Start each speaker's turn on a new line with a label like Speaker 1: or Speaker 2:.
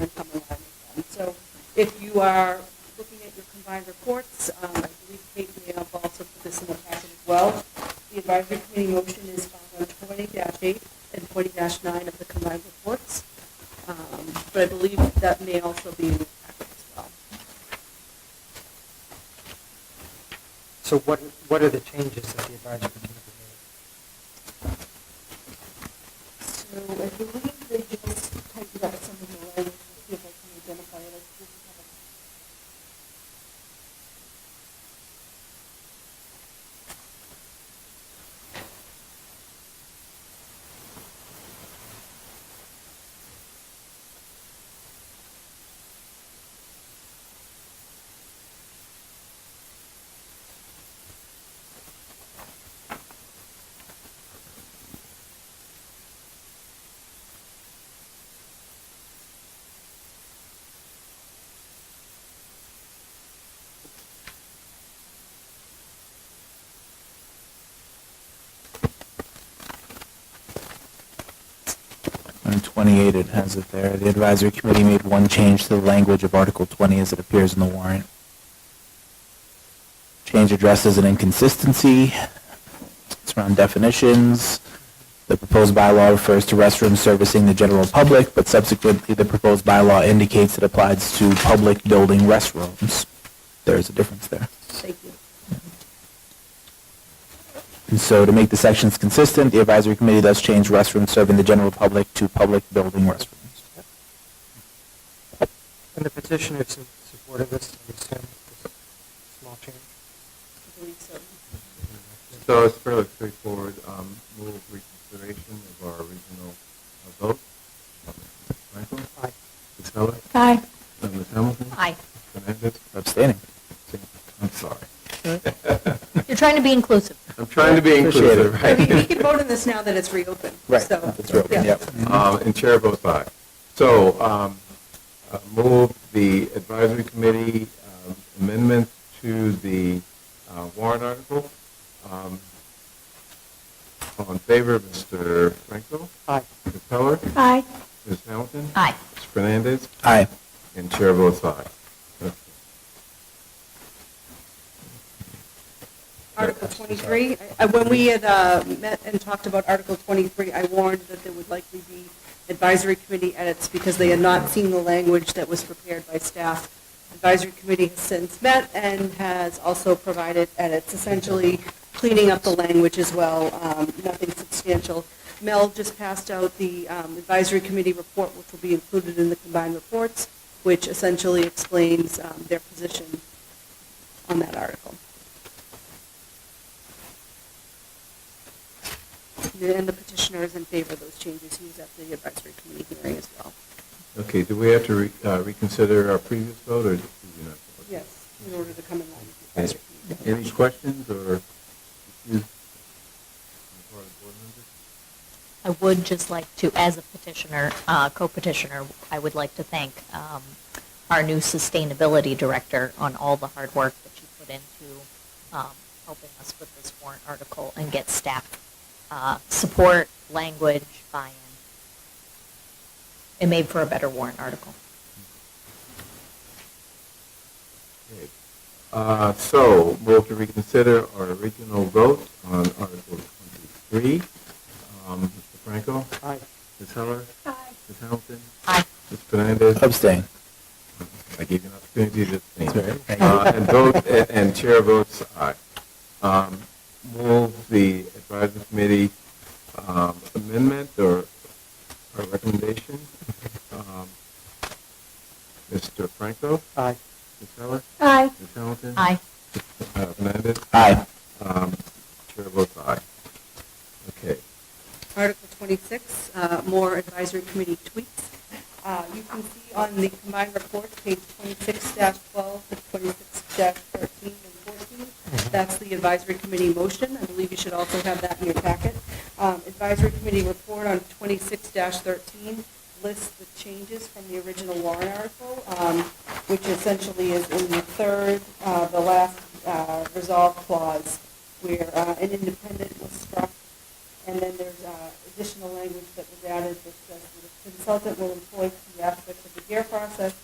Speaker 1: are coming out. And So if you are looking at your combined reports, um, I believe Kate may have also put this in the packet as well. The advisory committee motion is found on twenty eight and twenty nine of the combined reports. Um, But I believe that may also be in the packet as well.
Speaker 2: So what, what are the changes that the advisory committee made?
Speaker 1: So I believe they just typed out some of the language, see if I can identify it. I didn't have it.
Speaker 3: On 28, it has it there. The advisory committee made one change to the language of Article 20 as it appears in the warrant. Change addresses an inconsistency. It's around definitions. The proposed bylaw refers to restrooms servicing the general public, but subsequently, the proposed bylaw indicates it applies to public building restrooms. There's a difference there.
Speaker 1: Thank you.
Speaker 3: And so to make the sections consistent, the advisory committee thus changed restrooms serving the general public to public building restrooms.
Speaker 2: And the petitioners su- supported this, I assume, this small change?
Speaker 1: I believe so.
Speaker 4: So it's fairly straightforward. Um, Move reconsideration of our original uh, vote. Michael?
Speaker 2: Aye.
Speaker 4: Ms. Heller?
Speaker 5: Aye.
Speaker 4: Uh, Ms. Hamilton?
Speaker 5: Aye.
Speaker 4: Fernandez?
Speaker 3: Abstaining.
Speaker 4: I'm sorry.
Speaker 5: You're trying to be inclusive.
Speaker 4: I'm trying to be
Speaker 3: Appreciate it.
Speaker 4: inclusive,
Speaker 1: But We we
Speaker 4: right?
Speaker 1: can vote on this now that it's reopened.
Speaker 3: Right.
Speaker 1: So,
Speaker 3: That's right.
Speaker 1: yeah.
Speaker 3: Yep.
Speaker 4: Um, And chair votes aye. So um, uh, move the advisory committee um, amendment to the uh, warrant article. Um, All in favor, Mr. Franco?
Speaker 2: Aye.
Speaker 4: Ms. Heller?
Speaker 5: Aye.
Speaker 4: Ms. Hamilton?
Speaker 5: Aye.
Speaker 4: Ms. Fernandez?
Speaker 3: Aye.
Speaker 4: And chair votes aye. Okay.
Speaker 1: Article 23, I- I- when we had uh, met and talked about Article 23, I warned that there would likely be advisory committee edits because they had not seen the language that was prepared by staff. Advisory committee has since met and has also provided edits, essentially cleaning up the language as well, um, nothing substantial. Mel just passed out the um, advisory committee report, which will be included in the combined reports, which essentially explains um, their position on that article. And the petitioner is in favor of those changes. He was at the advisory committee hearing as well.
Speaker 4: Okay, do we have to re- uh, reconsider our previous vote, or do you not?
Speaker 1: Yes, in order to come in line with the
Speaker 4: Okay.
Speaker 1: advisory committee.
Speaker 4: Any questions or issues? on the part of the board members?
Speaker 5: I would just like to, as a petitioner, uh, co-petitioner, I would like to thank um, our new sustainability director on all the hard work that she put into um, helping us with this warrant article and get staff uh, support, language, buy-in. It made for a better warrant article.
Speaker 4: Okay. Uh, So, move to reconsider our original vote on Article 23. Um, Mr. Franco?
Speaker 2: Aye.
Speaker 4: Ms. Heller? Ms. Hamilton?
Speaker 5: Aye.
Speaker 4: Ms. Fernandez?
Speaker 3: Abstain.
Speaker 4: I gave you an opportunity to abstain.
Speaker 3: That's all right. Thank you.
Speaker 4: Uh, And vote, and- and chair votes aye. Um, Move the advisory committee um, amendment or or recommendation. Um, Mr. Franco?
Speaker 2: Aye.
Speaker 4: Ms. Heller?
Speaker 5: Aye.
Speaker 4: Ms. Hamilton?
Speaker 5: Aye.
Speaker 4: Uh, Fernandez?
Speaker 3: Aye.
Speaker 4: Um, Chair votes aye. Okay.
Speaker 1: Article 26, uh, more advisory committee tweaks. Uh, You can see on the combined report, page 26-12 to 26-13 and 14, that's the advisory committee motion. I believe you should also have that in your packet. Um, Advisory committee report on 26-13 lists the changes from the original warrant article, um, which essentially is in the third, uh, the last uh, resolve clause, where uh, an independent was struck And then there's uh, additional language that was added that says that the consultant will employ key aspects of the GARE process